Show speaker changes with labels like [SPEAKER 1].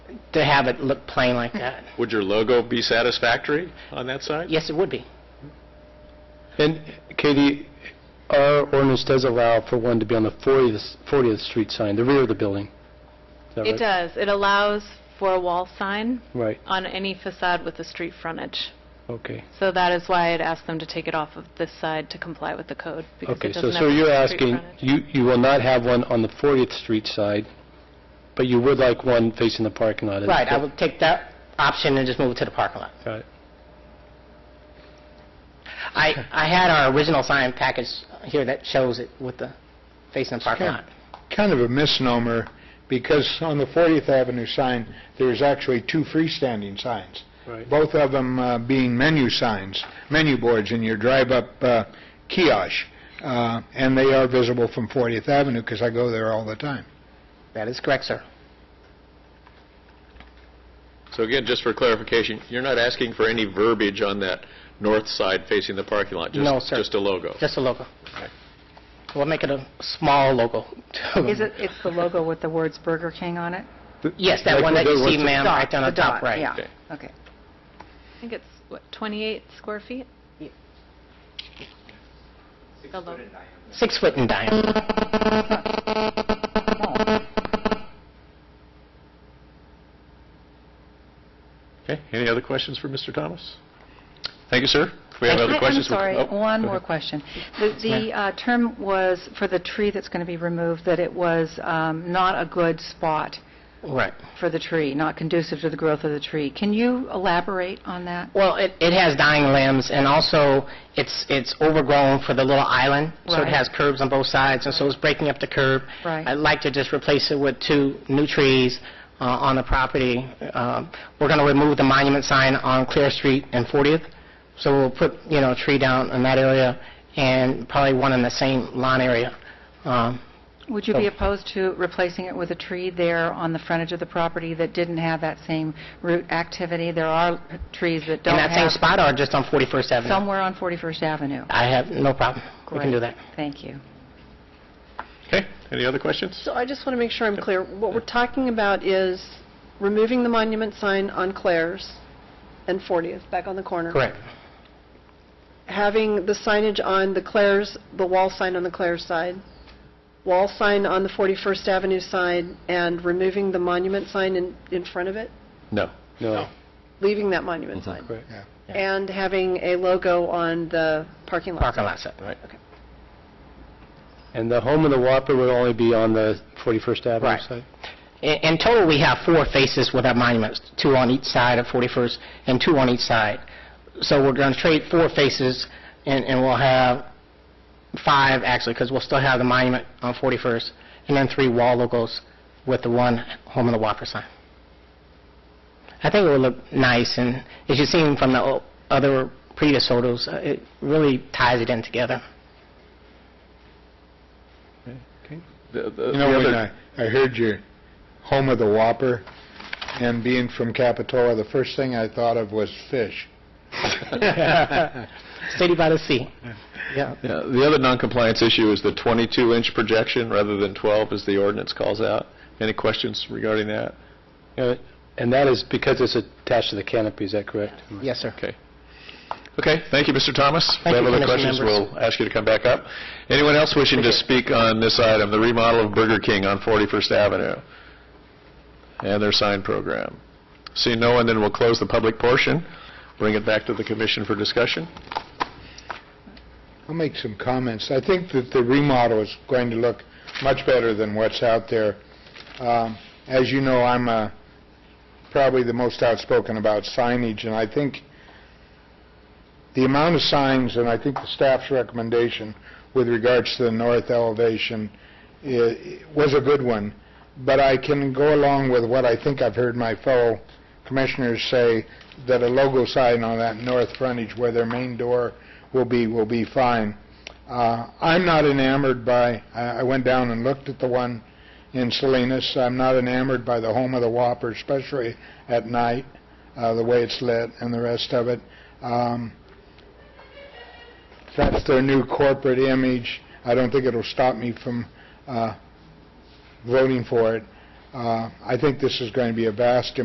[SPEAKER 1] to have it look plain like that.
[SPEAKER 2] Would your logo be satisfactory on that side?
[SPEAKER 1] Yes, it would be.
[SPEAKER 3] And Katie, our ordinance does allow for one to be on the 40th 40th Street sign, the rear of the building. Is that
[SPEAKER 4] It
[SPEAKER 3] right?
[SPEAKER 4] does. It allows for a wall sign
[SPEAKER 3] Right,
[SPEAKER 4] on any facade with a street frontage.
[SPEAKER 3] okay.
[SPEAKER 4] So that is why I'd asked them to take it off of this side to comply with the code, because
[SPEAKER 3] Okay,
[SPEAKER 4] it
[SPEAKER 3] so
[SPEAKER 4] doesn't
[SPEAKER 3] so
[SPEAKER 4] have a
[SPEAKER 3] you're
[SPEAKER 4] street
[SPEAKER 3] asking,
[SPEAKER 4] frontage.
[SPEAKER 3] you you will not have one on the 40th Street side, but you would like one facing the parking lot? is
[SPEAKER 1] Right, I
[SPEAKER 3] that-
[SPEAKER 1] would take that option and just move it to the parking lot.
[SPEAKER 3] Got it.
[SPEAKER 1] I, I had our original sign package here that shows it with the facing the parking lot.
[SPEAKER 5] kind of a misnomer, because on the 40th Avenue sign, there's actually two freestanding signs,
[SPEAKER 3] Right.
[SPEAKER 5] both of them uh, being menu signs, menu boards in your drive-up uh, kiosk, Uh, and they are visible from 40th Avenue, because I go there all the time.
[SPEAKER 1] That is correct, sir.
[SPEAKER 2] So again, just for clarification, you're not asking for any verbiage on that north side facing the parking lot? just-
[SPEAKER 1] No, sir.
[SPEAKER 2] Just a logo?
[SPEAKER 1] Just a logo. We'll make it a small logo.
[SPEAKER 6] Is it, it's the logo with the words Burger King on it?
[SPEAKER 1] Yes, that one that you see, ma'am, right down on
[SPEAKER 6] The dot,
[SPEAKER 1] top, right.
[SPEAKER 6] yeah.
[SPEAKER 2] Okay.
[SPEAKER 6] Okay.
[SPEAKER 4] I think it's, what, 28 square feet? The lo-
[SPEAKER 1] Six foot in diameter.
[SPEAKER 2] Okay, any other questions for Mr. Thomas? Thank you, sir. If we have other
[SPEAKER 6] I-
[SPEAKER 2] questions... we-
[SPEAKER 6] I'm sorry,
[SPEAKER 2] oh,
[SPEAKER 6] one
[SPEAKER 2] go
[SPEAKER 6] more
[SPEAKER 2] ahead.
[SPEAKER 6] question. The- The uh, term was, for the tree that's going to be removed, that it was um, not a good spot Mm-hmm.
[SPEAKER 1] Right.
[SPEAKER 6] for the tree, not conducive to the growth of the tree. Can you elaborate on that?
[SPEAKER 1] Well, it, it has dying limbs, and also, it's, it's overgrown for the little island, so it
[SPEAKER 6] Right.
[SPEAKER 1] has curbs on both sides, and so it's breaking up the curb.
[SPEAKER 6] Right.
[SPEAKER 1] I'd like to just replace it with two new trees uh, on the property. Um, We're going to remove the monument sign on Clear Street and 40th, so we'll put, you know, a tree down in that area, and probably one in the same lawn area. Um,
[SPEAKER 6] Would you be opposed to replacing it with a tree there on the frontage of the property that didn't have that same root activity? There are trees that
[SPEAKER 1] In
[SPEAKER 6] don't
[SPEAKER 1] that same
[SPEAKER 6] have,
[SPEAKER 1] spot, or just on 41st Avenue?
[SPEAKER 6] somewhere on 41st Avenue.
[SPEAKER 1] I have no problem. We can do that.
[SPEAKER 6] Thank you.
[SPEAKER 2] Okay, any other questions?
[SPEAKER 7] So I just want to make sure I'm clear. What we're talking about is removing the monument sign on Claire's and 40th, back on the corner.
[SPEAKER 1] Correct.
[SPEAKER 7] Having the signage on the Claire's, the wall sign on the Claire's side, wall sign on the 41st Avenue side, and removing the monument sign in, in front of it,
[SPEAKER 2] No.
[SPEAKER 3] No,
[SPEAKER 7] leaving that monument
[SPEAKER 1] Mm-hmm.
[SPEAKER 7] sign.
[SPEAKER 3] correct.
[SPEAKER 7] And having a logo on the parking lot.
[SPEAKER 1] Parking
[SPEAKER 7] sign.
[SPEAKER 1] lot side.
[SPEAKER 2] Right.
[SPEAKER 3] And the home of the Whopper would only be on the 41st Avenue
[SPEAKER 1] Right.
[SPEAKER 3] side?
[SPEAKER 1] In in total, we have four faces with our monuments, two on each side of 41st and two on each side. So we're going to trade four faces, and and we'll have five, actually, because we'll still have the monument on 41st, and then three wall logos with the one Home of the Whopper sign. I think it will look nice, and as you've seen from the o- other previous photos, uh, it really ties it in together.
[SPEAKER 2] The- the-
[SPEAKER 5] You know,
[SPEAKER 2] the
[SPEAKER 5] when I
[SPEAKER 2] other-
[SPEAKER 5] I heard your home of the Whopper, and being from Capitola, the first thing I thought of was fish.
[SPEAKER 1] City by the Sea.
[SPEAKER 2] Yeah, The other non-compliance issue is the 22-inch projection rather than 12, as the ordinance calls out. Any questions regarding that?
[SPEAKER 3] Uh, And that is because it's attached to the canopy, is that correct?
[SPEAKER 1] Yes, sir.
[SPEAKER 2] Okay. Okay, thank you, Mr. Thomas.
[SPEAKER 1] Thank
[SPEAKER 2] If we
[SPEAKER 1] you,
[SPEAKER 2] have other
[SPEAKER 1] Commission
[SPEAKER 2] questions,
[SPEAKER 1] members.
[SPEAKER 2] we'll ask you to come back up. Anyone else wishing to speak on this item, the remodel of Burger King on 41st Avenue and their sign program? Seeing no one, then we'll close the public portion, bring it back to the commission for discussion.
[SPEAKER 5] I'll make some comments. I think that the remodel is going to look much better than what's out there. Um, As you know, I'm uh, probably the most outspoken about signage, and I think the amount of signs, and I think the staff's recommendation with regards to the north elevation i- was a good one, but I can go along with what I think I've heard my fellow commissioners say, that a logo sign on that north frontage where their main door will be, will be fine. Uh, I'm not enamored by, I I went down and looked at the one in Salinas, I'm not enamored by the home of the Whopper, especially at night, uh, the way it's lit and the rest of it. Um, That's their new corporate image. I don't think it'll stop me from uh, voting for it. Uh, I think this is going to be a vast